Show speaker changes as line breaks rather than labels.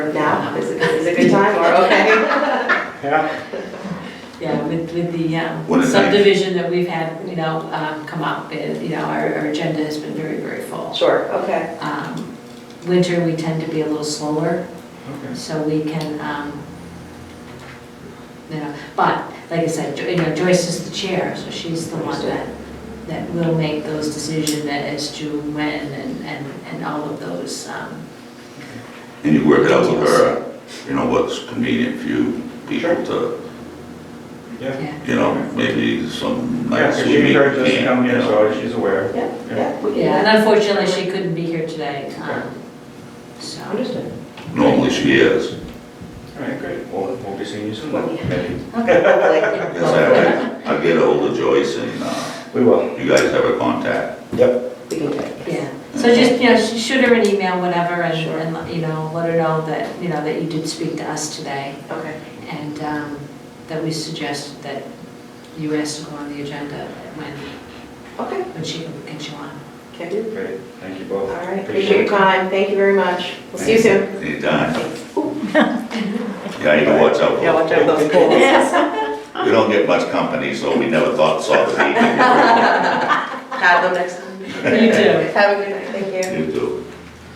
time, is it, is it a good time or okay?
Yeah,
Yeah, with, with the um,
What is it?
subdivision that we've had, you know, um, come up, it- you know, our, our agenda has been very, very full.
Sure, okay.
Um, Winter, we tend to be a little slower,
okay.
so we can, um, you know, but, like I said, Jo- you know, Joyce is the chair, so she's the one that, that will make those decisions as to when and, and, and all of those, um,
And you work it out with her, you know, what's convenient for you people to,
Yeah,
yeah.
you know, maybe some
yeah,
nights
so
we meet,
she heard
we
this
can't,
come
you
in,
know.
so she's aware.
Yeah, yeah. we can-
Yeah, and unfortunately, she couldn't be here today, um, so.
Understood.
Normally she is.
All right, great, we'll, we'll be seeing you soon,
Yeah.
maybe.
Okay.
Yes, I, I get ahold of Joyce and, uh,
We will.
you guys have her contact.
Yep.
We can check.
Yeah, so just, you know, sh- shoot her an email, whatever, and, and, you know, let her know that, you know, that you did speak to us today,
Okay.
and um, that we suggested that you asked to go on the agenda when,
Okay,
when she can get you on.
can do.
Great, thank you
All
both.
right, appreciate your time, thank you very much. We'll see you soon.
Anytime. Yeah, you can watch out for
watch out those poles.
We don't get much company, so we never thought, saw the meeting.
Have them next time.
You too.
Have a good night, thank you.